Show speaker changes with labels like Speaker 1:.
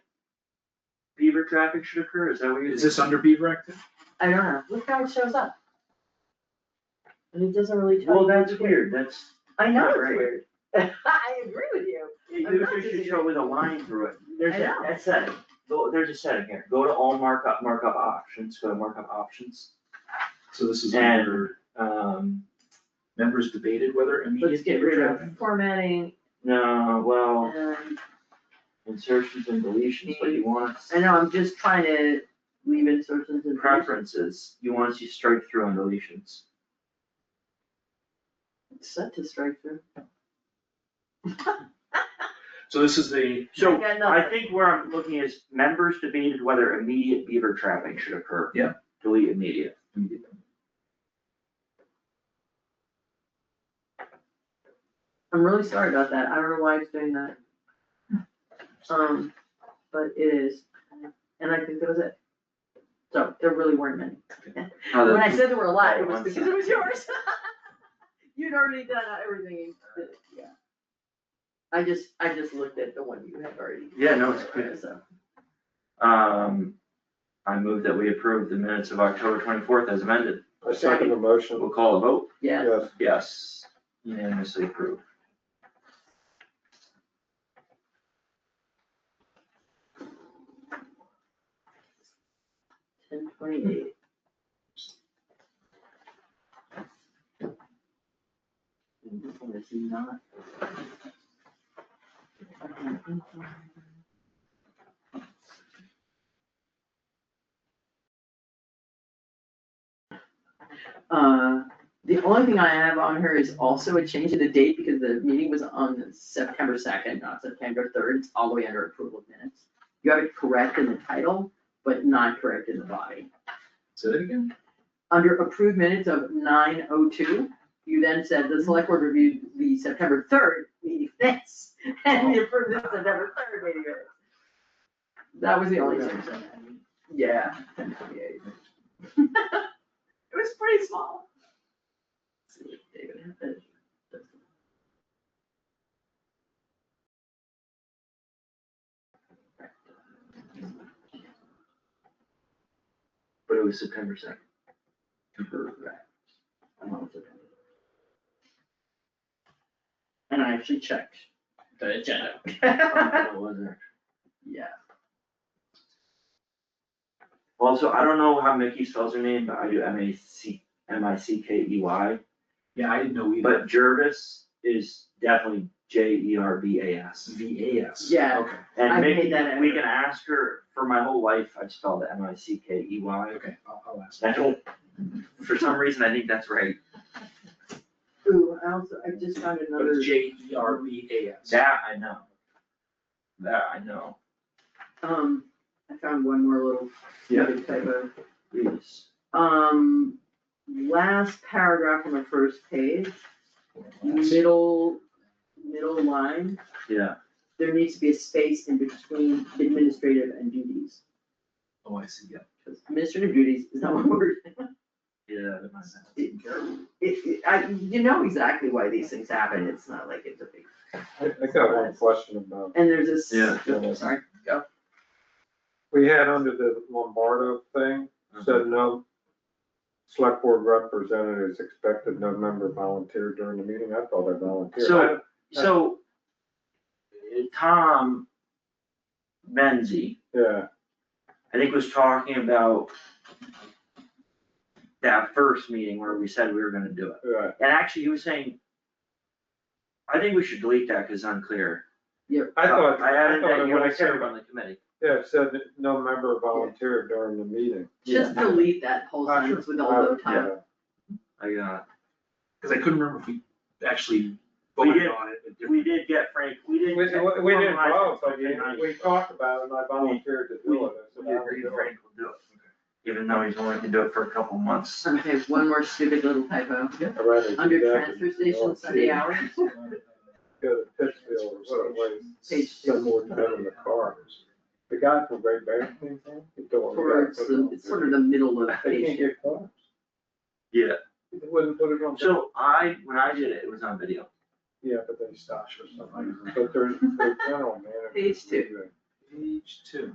Speaker 1: beaver traffic should occur, is that what you're?
Speaker 2: Is this under Beaver Act?
Speaker 3: I don't know, look how it shows up. And it doesn't really tell
Speaker 1: Well,
Speaker 3: you.
Speaker 1: that's
Speaker 3: which way.
Speaker 1: weird, that's,
Speaker 3: I know
Speaker 1: Not
Speaker 3: it's
Speaker 1: right.
Speaker 3: weird. I agree with you.
Speaker 1: you
Speaker 3: I'm not
Speaker 1: should show with a line through it, there's
Speaker 3: I
Speaker 1: a,
Speaker 3: know.
Speaker 1: that's it, Go- there's a setting here, go to all markup, markup options, go to markup options.
Speaker 2: So this is
Speaker 1: And-
Speaker 2: under
Speaker 1: Um,
Speaker 2: members debated whether
Speaker 3: Let's
Speaker 2: immediate
Speaker 3: get
Speaker 2: beaver
Speaker 3: rid of
Speaker 2: traffic.
Speaker 3: formatting
Speaker 1: no, well,
Speaker 3: and,
Speaker 1: insertions and deletions, but you want
Speaker 3: I know, I'm just trying to leave insertions and.
Speaker 1: preferences, you want to see strike through and deletions.
Speaker 3: It's Set to strike through.
Speaker 2: So this is the,
Speaker 1: So,
Speaker 3: got
Speaker 1: I
Speaker 3: nothing.
Speaker 1: think where I'm looking is members debated whether immediate beaver traffic should occur.
Speaker 2: Yeah.
Speaker 1: Delete immediate.
Speaker 3: I'm really sorry about that, I don't know why it's doing that. Um, but it is, and I think that was it. So, there really weren't many. When I said there were a lot, it was because it was yours. You'd already done everything, that- yeah. I just, I just looked at the one you had already.
Speaker 1: Yeah, no, it's good.
Speaker 3: So,
Speaker 1: Um, I move that we approve the minutes of October twenty-fourth as amended.
Speaker 4: I second the motion,
Speaker 1: We'll call a vote.
Speaker 3: yeah,
Speaker 4: yes,
Speaker 1: Yes. Unanimously approved.
Speaker 3: ten twenty-eight.
Speaker 1: Is he not?
Speaker 3: Uh, the only thing I have on her is also a change of the date because the meeting was on September second, not September third, it's all the way under approval of minutes. You have it correct in the title, but not correct in the body.
Speaker 2: say that again?
Speaker 3: Under approved minutes of nine oh two, you then said the select board reviewed the September third meeting minutes and we approved the September third meeting minutes. That was the only change I had. Yeah, ten twenty-eight. It was pretty small. Let's see if David had that.
Speaker 1: But it was September second.
Speaker 3: I'm also gonna- And I actually checked the agenda. Yeah,
Speaker 1: Also, I don't know how Mickey spells her name, but I do M A C, M I C K E Y,
Speaker 2: Yeah, I didn't know either.
Speaker 1: but Jervis is definitely J E R V A S.
Speaker 2: V A S.
Speaker 3: Yeah.
Speaker 2: Okay,
Speaker 3: I
Speaker 1: And
Speaker 3: made
Speaker 1: Mickey,
Speaker 3: that
Speaker 1: we
Speaker 3: effort.
Speaker 1: can ask her, for my whole life, I spelled it M I C K E Y.
Speaker 2: okay, I'll, I'll ask.
Speaker 1: I don't, for some reason, I think that's right.
Speaker 3: ooh, I also, I just found
Speaker 2: But
Speaker 3: another,
Speaker 2: it's J E R V A S.
Speaker 1: That I know. That I know.
Speaker 3: um, I found one more little
Speaker 1: Yeah.
Speaker 3: stupid typo.
Speaker 1: Please.
Speaker 3: Um, last paragraph on the first page, middle, middle line,
Speaker 1: Yeah.
Speaker 3: there needs to be a space in between administrative and duties.
Speaker 2: Oh, I see, yeah.
Speaker 3: Because administrative duties is not one word.
Speaker 1: Yeah.
Speaker 2: That makes sense.
Speaker 3: It, it, I, you know exactly why these things happen, it's not like it's a big,
Speaker 4: I, I got one question about,
Speaker 3: and there's this.
Speaker 1: Yeah.
Speaker 3: Sorry, go.
Speaker 4: we had under the Lombardo thing, said no select board representatives expected, no member volunteered during the meeting, I thought I volunteered.
Speaker 1: So, so uh, Tom Menzie,
Speaker 4: Yeah,
Speaker 1: I think was talking about that first meeting where we said we were gonna do it.
Speaker 4: yeah,
Speaker 1: And actually, he was saying, I think we should delete that because it's unclear.
Speaker 4: I thought,
Speaker 1: I
Speaker 4: I
Speaker 1: added
Speaker 4: thought
Speaker 1: that
Speaker 4: it
Speaker 1: you
Speaker 4: would
Speaker 1: were
Speaker 4: have said,
Speaker 1: serve on the committee.
Speaker 4: yeah, it said that no member volunteered during the meeting.
Speaker 3: Just delete that whole
Speaker 4: Uh,
Speaker 3: sentence with all
Speaker 4: uh,
Speaker 3: the time.
Speaker 4: yeah.
Speaker 1: I uh, got.
Speaker 2: Cause I couldn't remember if we actually
Speaker 1: We
Speaker 2: voted
Speaker 1: did.
Speaker 2: on it. but
Speaker 1: We did get Frank, we
Speaker 4: We,
Speaker 1: didn't.
Speaker 4: we we didn't
Speaker 1: compromise
Speaker 4: vote, but
Speaker 1: between us.
Speaker 4: we, we talked about it and I volunteered to do it. I said,
Speaker 1: We
Speaker 4: I'll
Speaker 1: agreed
Speaker 4: do it.
Speaker 1: Frank will do it, even though he's only can do it for a couple months.
Speaker 3: Okay, one more stupid little typo,
Speaker 4: I'd rather do
Speaker 3: under
Speaker 4: that
Speaker 3: transfer
Speaker 4: than do
Speaker 3: station
Speaker 4: it.
Speaker 3: Sunday hours,
Speaker 2: different.
Speaker 4: Go to Pittsfield or someplace,
Speaker 3: Page two.
Speaker 4: send more time in the car. The guy from Great Bear, he's doing.
Speaker 3: towards the, it's sort of the middle of
Speaker 4: They
Speaker 3: page
Speaker 4: can't
Speaker 3: two.
Speaker 4: get cars.
Speaker 1: Yeah.
Speaker 4: They wouldn't put it on.
Speaker 1: So I, when I did it, it was on video.
Speaker 4: Yeah, but they stash or something, but they're, they're general man.
Speaker 3: Page two.
Speaker 2: Page two.